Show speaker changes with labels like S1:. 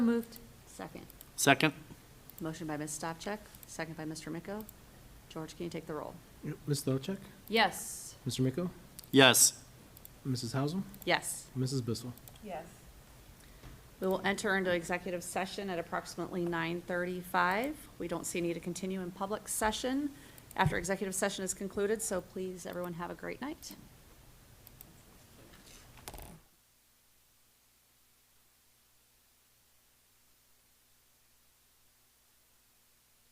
S1: moved.
S2: Second.
S3: Second?
S2: Motion by Ms. Stavcek, second by Mr. Miko. George, can you take the roll?
S4: Ms. Stavcek,
S2: Yes.
S4: Mr. Miko,
S3: Yes.
S4: Mrs. Hausum,
S2: Yes.
S4: Mrs. Bissell.
S1: Yes.
S2: We will enter into executive session at approximately 9:35. We don't see need to continue in public session after executive session is concluded, so please, everyone, have a great night.